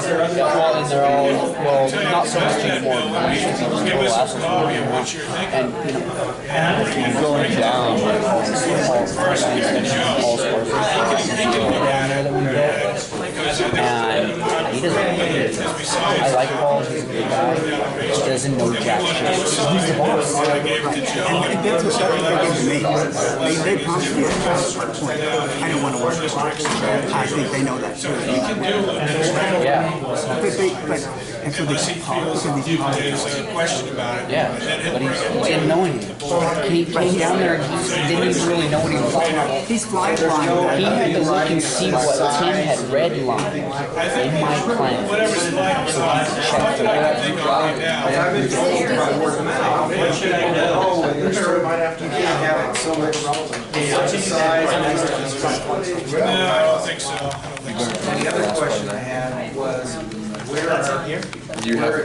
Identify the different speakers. Speaker 1: their other qualities, they're all, well, not so much anymore. but it's just a little absence of
Speaker 2: Bobby, what you're thinking.
Speaker 1: And, you know,
Speaker 3: Going down, like, all sports, all sports.
Speaker 1: that we built. And he doesn't know it. I like Paul, he's a good guy. He doesn't know jack shit. He's the boss.
Speaker 4: And that's what that thing they gave me. They, they promised me at that point, I don't want to work for Fox. I think they know that too.
Speaker 1: Yeah,
Speaker 4: But they, but, and so they said, Paul, so they said,
Speaker 2: There's a uh, question about it.
Speaker 1: yeah. But he he didn't know anything. He came down there and he didn't even really know what he was talking about.
Speaker 4: he's blind.
Speaker 1: He had to look and see what Tim had redlined in my plan. So I checked it out.
Speaker 2: No, I don't think so.
Speaker 5: The other question I had was, where are,
Speaker 3: You have